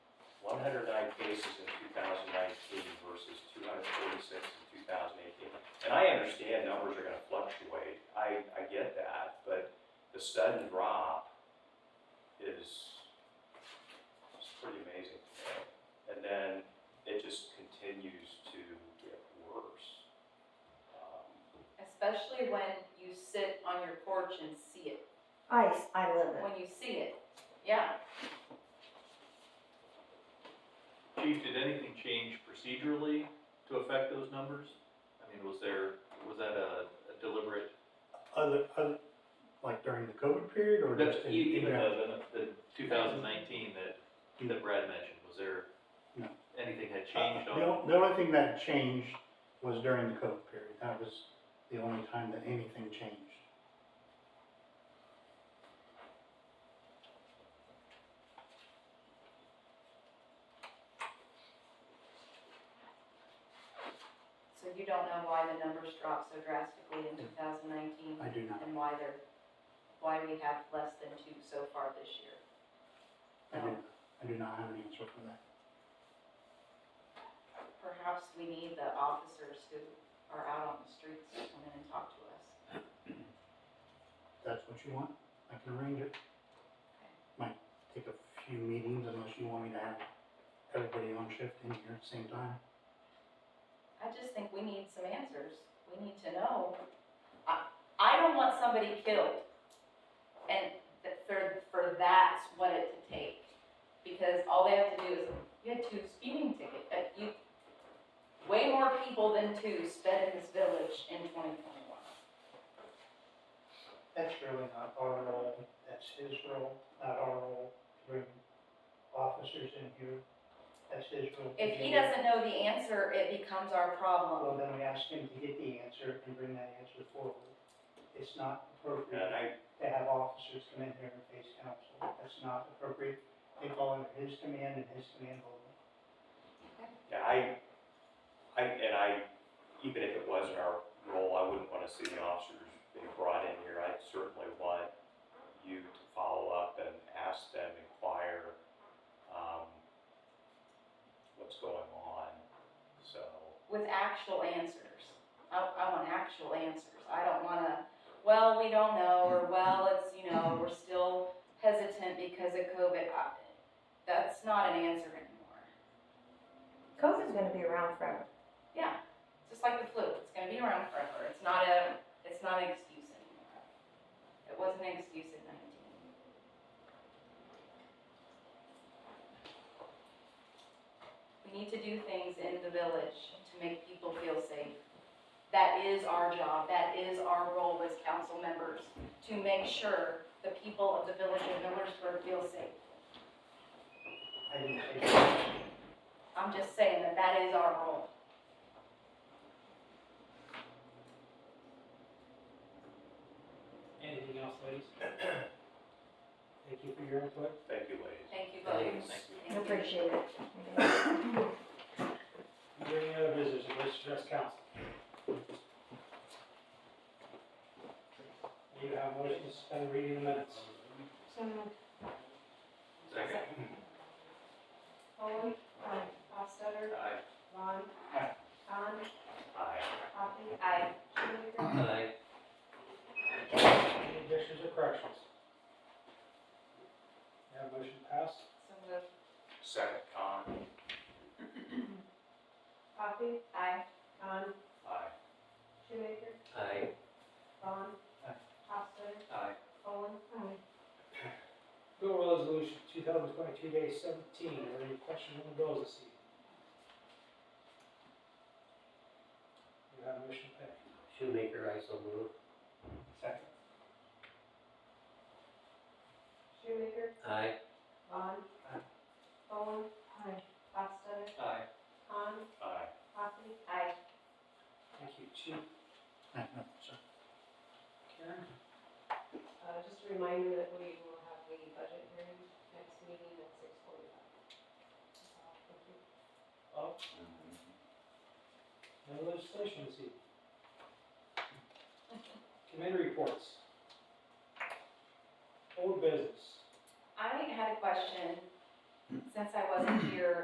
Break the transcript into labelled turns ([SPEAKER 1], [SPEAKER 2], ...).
[SPEAKER 1] hundred nine cases in two thousand nineteen versus two hundred forty-six in two thousand eighteen. And I understand numbers are gonna fluctuate, I, I get that, but the sudden drop is, is pretty amazing to me. And then it just continues to get worse. Um,
[SPEAKER 2] Especially when you sit on your porch and see it,
[SPEAKER 3] I, s- I live it.
[SPEAKER 2] when you see it, yeah.
[SPEAKER 4] Chief, did anything change procedurally to affect those numbers? I mean, was there, was that a a deliberate,
[SPEAKER 5] Other, other, like during the COVID period or just?
[SPEAKER 4] That-
[SPEAKER 5] in-
[SPEAKER 4] e- even
[SPEAKER 5] in-
[SPEAKER 4] the, the two thousand nineteen that, that Brad mentioned, was there?
[SPEAKER 5] No.
[SPEAKER 4] Anything had changed
[SPEAKER 5] Uh,
[SPEAKER 4] on?
[SPEAKER 5] The, on- the only thing that changed was during the COVID period. That was the only time that anything changed.
[SPEAKER 2] So you don't know why the numbers dropped so drastically in two thousand nineteen
[SPEAKER 5] I do not,
[SPEAKER 2] and why they're, why we have less than two so far this year.
[SPEAKER 5] I do,
[SPEAKER 2] No.
[SPEAKER 5] I do not have an answer for that.
[SPEAKER 2] Perhaps we need the officers who are out on the streets to come in and talk to us.
[SPEAKER 5] If that's what you want, I can arrange it. Might take a few meetings unless you want me to have everybody on shift in here at the same time.
[SPEAKER 2] I just think we need some answers. We need to know. I, I don't want somebody killed. And th- for, for that's what it to take. Because all they have to do is, you had two speeding tickets, uh, you, way more people than two sped in this village in twenty twenty-one.
[SPEAKER 6] That's really not our role, that's his role, not our role, to bring officers in here, that's his role. to
[SPEAKER 2] If he
[SPEAKER 6] do it.
[SPEAKER 2] doesn't know the answer, it becomes our
[SPEAKER 6] Well,
[SPEAKER 2] problem.
[SPEAKER 6] then we ask him to get the answer and bring that answer forward. It's not
[SPEAKER 1] And
[SPEAKER 6] appropriate
[SPEAKER 1] I,
[SPEAKER 6] to have officers come in here and face counsel, that's not appropriate. They fall under his command and his command only.
[SPEAKER 1] Yeah, I, I, and I, even if it wasn't our role, I wouldn't wanna see the officers being brought in here. I certainly want you to follow up and ask them, inquire, um, what's going on, so.
[SPEAKER 2] with actual answers. I, I want actual answers. I don't wanna, well, we don't know, or well, it's, you know, we're still hesitant because of COVID. I- That's not an answer anymore.
[SPEAKER 3] COVID's gonna be around forever.
[SPEAKER 2] Yeah, just like the flu, it's gonna be around forever. It's not a, it's not an excuse anymore. It wasn't an excuse in nineteen. We need to do things in the village to make people feel safe. That is our job, that is our role as council members, to make sure the people of the village of Millersburg feel safe.
[SPEAKER 6] I didn't say that.
[SPEAKER 2] I'm just saying that that is our role.
[SPEAKER 7] Anything else, ladies? Thank you for your input.
[SPEAKER 1] Thank you, ladies.
[SPEAKER 2] Thank you
[SPEAKER 4] Thank
[SPEAKER 2] both.
[SPEAKER 4] you.
[SPEAKER 3] I appreciate it.
[SPEAKER 7] Is there any other business you wish to address council? Do you have motion to suspend reading the minutes?
[SPEAKER 4] Second.
[SPEAKER 8] Foley, aye. Hostetter,
[SPEAKER 4] Aye.
[SPEAKER 8] um, Vaughn,
[SPEAKER 5] Aye.
[SPEAKER 8] Khan,
[SPEAKER 1] Aye.
[SPEAKER 8] Coffey,
[SPEAKER 2] I
[SPEAKER 8] Schumaker,
[SPEAKER 4] Aye.
[SPEAKER 7] Any additions or corrections? You have motion passed?
[SPEAKER 2] so moved.
[SPEAKER 1] Second con,
[SPEAKER 8] Coffey,
[SPEAKER 2] Aye.
[SPEAKER 8] Khan,
[SPEAKER 1] aye.
[SPEAKER 8] Schumaker,
[SPEAKER 4] Aye.
[SPEAKER 8] Vaughn,
[SPEAKER 6] Aye.
[SPEAKER 8] Hostetter,
[SPEAKER 4] Aye.
[SPEAKER 8] Foley, aye.
[SPEAKER 7] Bill resolution two thousand twenty-two day seventeen, are there any questions on the bills this evening? Do you have a motion to pay?
[SPEAKER 9] Shoemaker, I so move.
[SPEAKER 6] Second.
[SPEAKER 8] Schumaker,
[SPEAKER 9] Aye.
[SPEAKER 8] Vaughn,
[SPEAKER 6] Aye.
[SPEAKER 8] Foley, aye. Hostetter,
[SPEAKER 4] Aye.
[SPEAKER 8] Khan,
[SPEAKER 1] Aye.
[SPEAKER 8] Coffey,
[SPEAKER 7] Thank you, Chief
[SPEAKER 5] I- I- so-
[SPEAKER 7] Karen.
[SPEAKER 8] Uh, just a reminder that we will have the budget hearing next meeting at six forty-five. Thank you.
[SPEAKER 7] Bob? No legislation this evening. Committee reports.